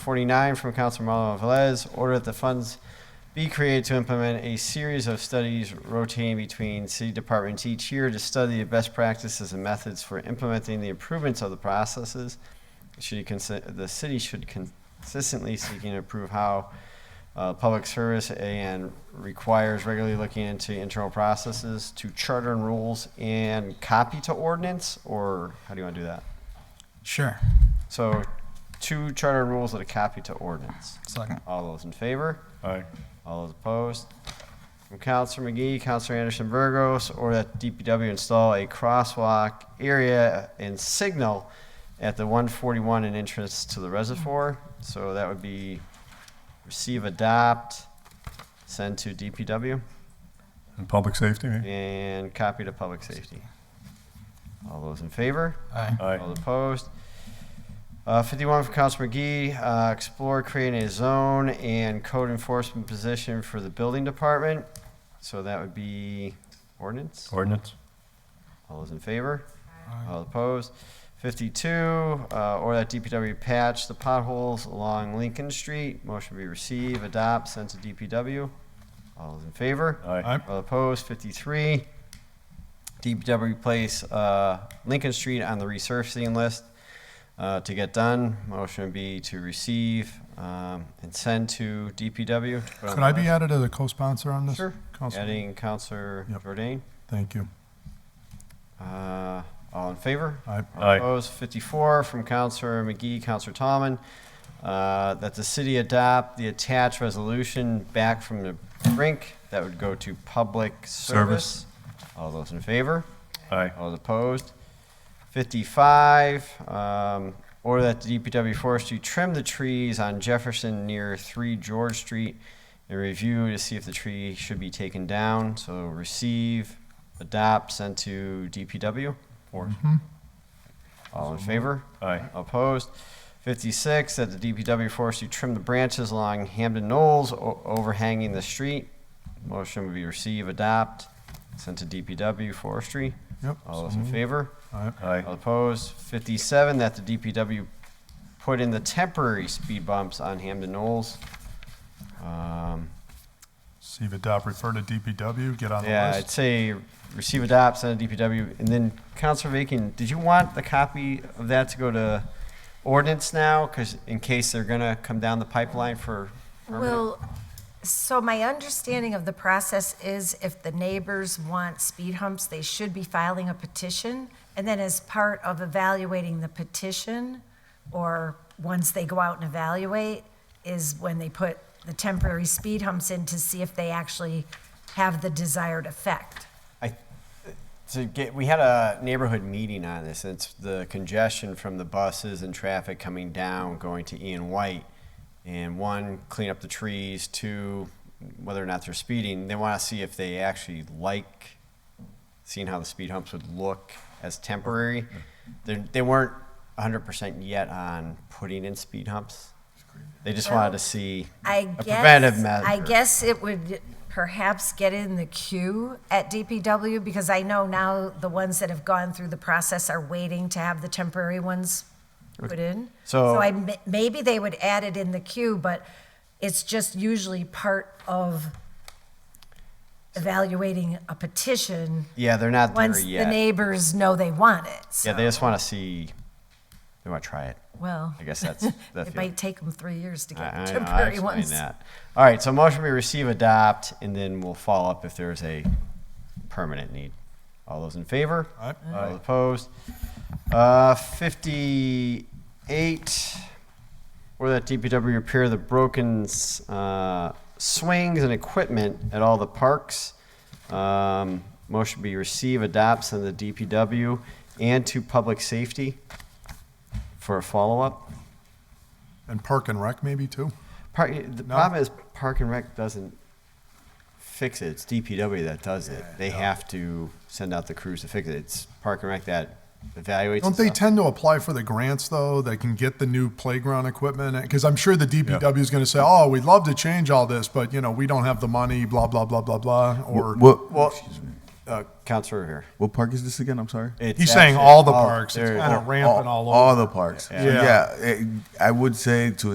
49 from Councilor Malo Velez, order that the funds be created to implement a series of studies rotating between city departments each year to study the best practices and methods for implementing the improvements of the processes. Should you consi- the city should consistently seek and approve how uh, public service and requires regularly looking into internal processes to charter and rules and copy to ordinance, or how do you want to do that? Sure. So, two charter and rules that are copy to ordinance. Second. All those in favor? Aye. All those opposed? From Counselor McGee, Counselor Anderson Burgos, or that DPW install a crosswalk area and signal at the 141 and entrance to the reservoir. So that would be receive, adopt, send to DPW, And public safety, Mm-hmm. eh? and copy to public safety. All those in favor? Aye. All Aye. opposed? Uh, 51 from Council McGee, uh, explore creating a zone and code enforcement position for the building department. So that would be ordinance. Ordinance? All those in favor? All opposed? 52, uh, or that DPW patch the potholes along Lincoln Street. Motion be receive, adopt, send to DPW. All those in favor? Aye. All opposed, 53. DPW place uh, Lincoln Street on the resurfacing list uh, to get done. Motion would be to receive um, and send to DPW. Could I be added as a co-sponsor on this? Sure. Counselor? Adding Counselor Yep. Jordan. Thank you. Uh, All in favor? Aye. All Aye. Opposed, 54 from Counselor McGee, Counselor Tomlin, uh, that the city adopt the attached resolution back from the brink that would go to public service. Service. All those in favor? Aye. All opposed? 55, um, order that the DPW forestry trim the trees on Jefferson near 3 George Street and review to see if the tree should be taken down. So receive, adopt, send to DPW. Four. All in favor? Aye. Opposed? 56, that the DPW forestry trim the branches along Hamden Knolls o- overhanging the street. Motion would be receive, adopt, send to DPW forestry. Yep. All those so in moved. favor? Aye. All Aye. opposed? 57, that the DPW put in the temporary speed bumps on Hamden Knolls. Um, See if adopt, refer to DPW, get on the Yeah, I'd list. say receive, adopt, send to DPW. And then Counselor Vacan, did you want the copy of that to go to ordinance now? Because in case they're going to come down the pipeline for permanent? Well, so my understanding of the process is if the neighbors want speed humps, they should be filing a petition. And then as part of evaluating the petition, or once they go out and evaluate, is when they put the temporary speed humps in to see if they actually have the desired effect. I, to get, we had a neighborhood meeting on this, and it's the congestion from the buses and traffic coming down, going to Ian White. And one, clean up the trees, two, whether or not they're speeding, they wanna see if they actually like seeing how the speed humps would look as temporary. They're, they weren't hundred percent yet on putting in speed humps. They just wanted to see I a guess. preventive measure. I guess it would perhaps get in the queue at DPW, because I know now the ones that have gone through the process are waiting to have the temporary ones put in. So- I, m- maybe they would add it in the queue, but it's just usually part of evaluating a petition Yeah, they're not there once the yet. neighbors know they want it, Yeah, so, they just wanna see, they wanna try it. well. I guess that's- that's It the- might take them three years to I- get I- the I temporary explained ones. that. All right, so motion we receive, adopt, and then we'll follow up if there's a permanent need. All those in favor? Aye. All opposed? Uh, fifty-eight, or that DPW repair the broken, s- uh, swings and equipment at all the parks. Um, motion be receive, adopt, send the DPW and to public safety for a follow-up. And Park and Rec maybe too? Park, the No? problem is Park and Rec doesn't fix it. It's DPW that does it. They have to send out the crews to fix it. It's Park and Rec that evaluates. Don't and they stuff. tend to apply for the grants though, that can get the new playground equipment? Because I'm sure the DPW is going to say, oh, we'd love to change all this, but you know, we don't have the money, blah, blah, blah, blah, blah, or. What, well, uh, Counselor here. what park is this again? I'm sorry. It's He's saying actually- all the oh, parks, it's there- kind of rampant all over. All the parks. Yeah. Yeah, it- I would say to